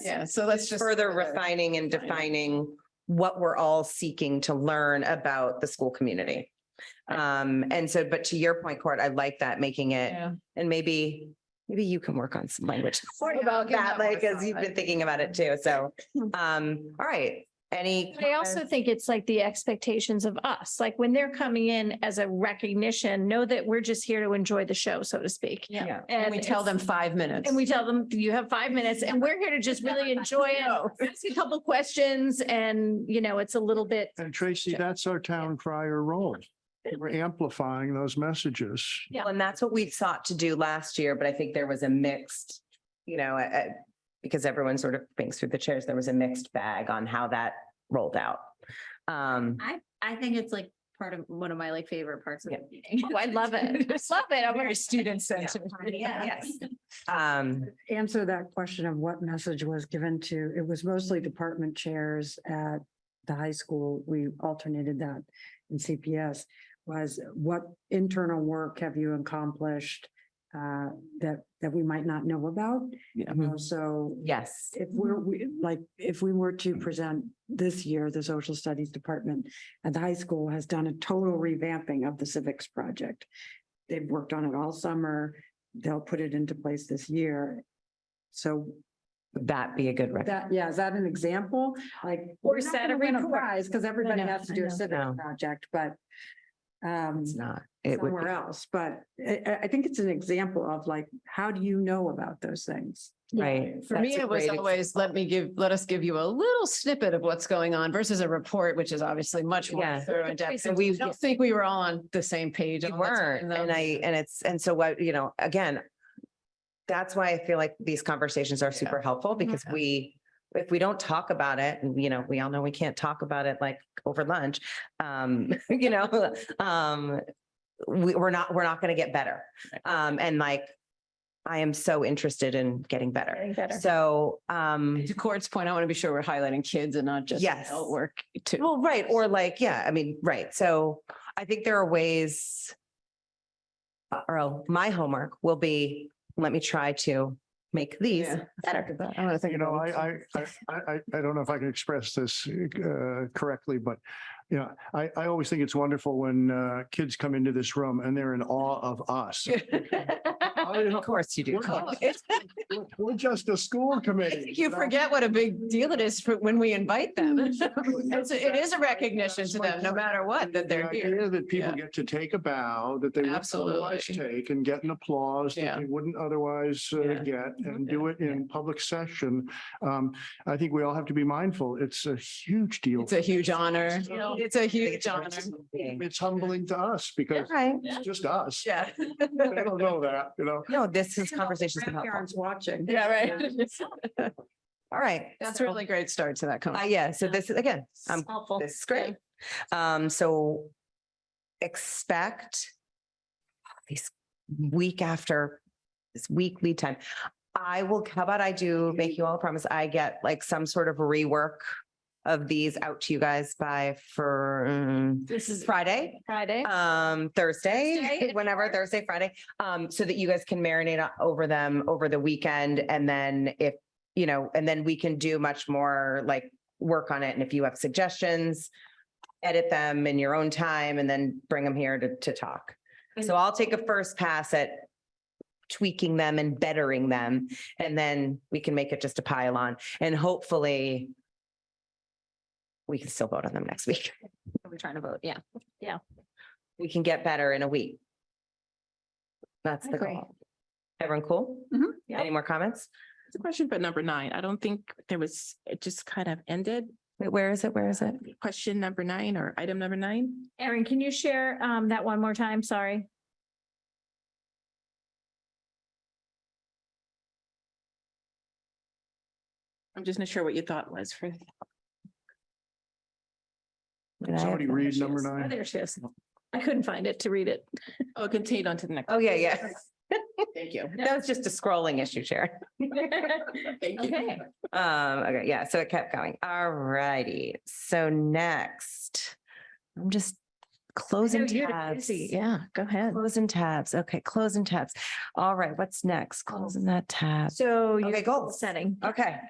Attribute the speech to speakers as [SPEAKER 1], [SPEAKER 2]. [SPEAKER 1] Yes.
[SPEAKER 2] Yeah, so let's just. uh,
[SPEAKER 1] Further refining and
[SPEAKER 2] Define it.
[SPEAKER 1] defining what we're all seeking to learn about the school community. Um, and so, but to your point, Court, I like that, making it,
[SPEAKER 2] Yeah.
[SPEAKER 1] and maybe, maybe you can work on some language
[SPEAKER 2] Or, yeah, I'll
[SPEAKER 1] about
[SPEAKER 2] give
[SPEAKER 1] that,
[SPEAKER 2] that more
[SPEAKER 1] like, as
[SPEAKER 2] thought.
[SPEAKER 1] you've been thinking about it too, so, um, all right, any?
[SPEAKER 3] But I also think it's like the expectations of us, like when they're coming in as a recognition, know that we're just here to enjoy the show, so to speak.
[SPEAKER 2] Yeah.
[SPEAKER 1] Yeah.
[SPEAKER 2] And we tell them
[SPEAKER 3] it's-
[SPEAKER 2] five minutes.
[SPEAKER 3] And we tell them, you have five minutes and we're here to just really enjoy
[SPEAKER 2] No.
[SPEAKER 3] it. Ask a couple questions and, you know, it's a little bit,
[SPEAKER 4] And Tracy,
[SPEAKER 3] Yeah.
[SPEAKER 4] that's our town crier role. We're amplifying those messages.
[SPEAKER 3] Yeah.
[SPEAKER 1] And that's what we sought to do last year, but I think there was a mixed, you know, uh, uh, because everyone sort of thinks through the chairs, there was a mixed bag on how that rolled out. Um,
[SPEAKER 5] I think it's like part of one of my like favorite parts of
[SPEAKER 1] Yeah.
[SPEAKER 5] the meeting.
[SPEAKER 3] oh, I love it. I love it. I'm
[SPEAKER 2] Very
[SPEAKER 3] very
[SPEAKER 2] student centered.
[SPEAKER 5] Yeah.
[SPEAKER 1] yes. Um,
[SPEAKER 6] answer that question of what message was given to, it was mostly department chairs at the high school. We alternated that in CPS was what internal work have you accomplished uh, that, that we might not know about?
[SPEAKER 1] Yeah.
[SPEAKER 6] You know, So
[SPEAKER 1] yes,
[SPEAKER 6] if we're, we, like, if we were to present this year, the social studies department at the high school has done a total revamping of the civics project. They've worked on it all summer. They'll put it into place this year. So
[SPEAKER 1] would that be a good record.
[SPEAKER 6] that, yeah, is that an example? Like.
[SPEAKER 3] Or
[SPEAKER 6] we're not
[SPEAKER 3] set a
[SPEAKER 6] gonna win
[SPEAKER 3] report.
[SPEAKER 6] prize Because everybody
[SPEAKER 3] no,
[SPEAKER 6] has to
[SPEAKER 3] I
[SPEAKER 6] do
[SPEAKER 3] know.
[SPEAKER 6] a
[SPEAKER 1] No.
[SPEAKER 6] civics project, but um,
[SPEAKER 1] It's not. It would,
[SPEAKER 6] somewhere else. But I, I- I think it's an example of like, how do you know about those things?
[SPEAKER 1] be- right.
[SPEAKER 2] For me,
[SPEAKER 1] That's a
[SPEAKER 2] it was
[SPEAKER 1] great
[SPEAKER 2] always, let me give, let us give you a little snippet of what's going on versus a report, which is obviously much more
[SPEAKER 1] Yeah.
[SPEAKER 2] thorough and depth. And
[SPEAKER 1] We-
[SPEAKER 2] we don't think we were all on the same page.
[SPEAKER 1] You
[SPEAKER 2] all the time,
[SPEAKER 1] weren't,
[SPEAKER 2] though.
[SPEAKER 1] and I, and it's, and so what, you know, again. That's why I feel like these conversations are super helpful because we, if we don't talk about it, and you know, we all know we can't talk about it like over lunch. Um, you know, um, we, we're not, we're not gonna get better. Um, and like, I am so interested in getting better.
[SPEAKER 3] getting better.
[SPEAKER 1] So, um,
[SPEAKER 2] To Court's point, I want to be sure we're highlighting kids and not just
[SPEAKER 1] Yes.
[SPEAKER 2] adult work too.
[SPEAKER 1] well, right, or like, yeah, I mean, right. So I think there are ways. uh, Or oh, my homework will be, let me try to make these
[SPEAKER 2] Yeah.
[SPEAKER 1] better.
[SPEAKER 2] I want to think
[SPEAKER 4] You know,
[SPEAKER 2] about it.
[SPEAKER 4] I, I, I, I, I don't know if I can express this uh, correctly, but, you know, I, I always think it's wonderful when uh, kids come into this room and they're in awe of us. I don't know.
[SPEAKER 1] Of course you do.
[SPEAKER 4] We're
[SPEAKER 1] Colin.
[SPEAKER 4] not- we're- We're just a school
[SPEAKER 2] I
[SPEAKER 4] committee.
[SPEAKER 2] think You
[SPEAKER 4] know?
[SPEAKER 2] forget what a big deal it is for when we invite them. It's- It is a recognition to them, no matter what, that they're
[SPEAKER 4] The
[SPEAKER 2] here.
[SPEAKER 4] idea That people
[SPEAKER 2] Yeah.
[SPEAKER 4] get to take a bow that they wouldn't otherwise
[SPEAKER 2] Absolutely.
[SPEAKER 4] take and get an applause
[SPEAKER 2] Yeah.
[SPEAKER 4] that they wouldn't otherwise uh,
[SPEAKER 2] Yeah.
[SPEAKER 4] get and do it in public session. Um, I think we all have to be mindful. It's a huge deal.
[SPEAKER 2] It's a huge honor. It's a huge honor.
[SPEAKER 4] It's humbling to us because
[SPEAKER 1] Right.
[SPEAKER 4] it's just us.
[SPEAKER 2] Yeah.
[SPEAKER 4] They don't know that, you know?
[SPEAKER 1] No, this is conversations.
[SPEAKER 6] Parents watching.
[SPEAKER 2] Yeah, right.
[SPEAKER 1] All right.
[SPEAKER 2] That's a
[SPEAKER 1] So,
[SPEAKER 2] really great start to that
[SPEAKER 1] Uh,
[SPEAKER 2] conversation.
[SPEAKER 1] yeah, so this is, again, I'm,
[SPEAKER 5] Helpful.
[SPEAKER 1] this is great. Um, so expect these week after this week lead time. I will, how about I do make you all a promise? I get like some sort of rework of these out to you guys by for mm,
[SPEAKER 3] This is
[SPEAKER 1] Friday,
[SPEAKER 3] Friday.
[SPEAKER 1] um, Thursday,
[SPEAKER 3] Thursday.
[SPEAKER 1] whenever Thursday, Friday. Um, so that you guys can marinate o- over them over the weekend. And then if, you know, and then we can do much more like work on it. And if you have suggestions, edit them in your own time and then bring them here to, to talk. So I'll take a first pass at tweaking them and bettering them. And then we can make it just a pile on and hopefully we can still vote on them next week.
[SPEAKER 5] We're trying to vote, yeah.
[SPEAKER 1] we can get better in a week. That's
[SPEAKER 3] I
[SPEAKER 1] the
[SPEAKER 3] agree.
[SPEAKER 1] goal. Everyone cool?
[SPEAKER 3] Mm-hmm.
[SPEAKER 7] Mhm,
[SPEAKER 5] yeah.
[SPEAKER 1] Any more comments?
[SPEAKER 7] It's a question for number nine. I don't think there was, it just kind of ended.
[SPEAKER 1] Wait, where is it? Where is it?
[SPEAKER 7] Question number nine or item number nine?
[SPEAKER 3] Erin, can you share um that one more time? Sorry.
[SPEAKER 7] I'm just not sure what your thought was for.
[SPEAKER 1] Did I have
[SPEAKER 4] Somebody
[SPEAKER 1] that?
[SPEAKER 4] read number
[SPEAKER 3] Oh,
[SPEAKER 4] nine.
[SPEAKER 3] There she is. I couldn't find it to read it.
[SPEAKER 7] Oh, continue on to the next.
[SPEAKER 1] Oh, yeah, yeah.
[SPEAKER 7] Thank you.
[SPEAKER 1] That was just a scrolling issue, Sharon.
[SPEAKER 7] Thank you.
[SPEAKER 3] Okay.
[SPEAKER 1] Um, okay, yeah, so it kept going. All righty. So next, I'm just closing
[SPEAKER 3] you're
[SPEAKER 1] tabs.
[SPEAKER 2] Yeah, go ahead.
[SPEAKER 1] Closing tabs. Okay, Oh. closing tabs. All right, what's next? Closing that tab.
[SPEAKER 3] So
[SPEAKER 1] Okay,
[SPEAKER 3] you're
[SPEAKER 1] goal.
[SPEAKER 3] setting.
[SPEAKER 1] Okay.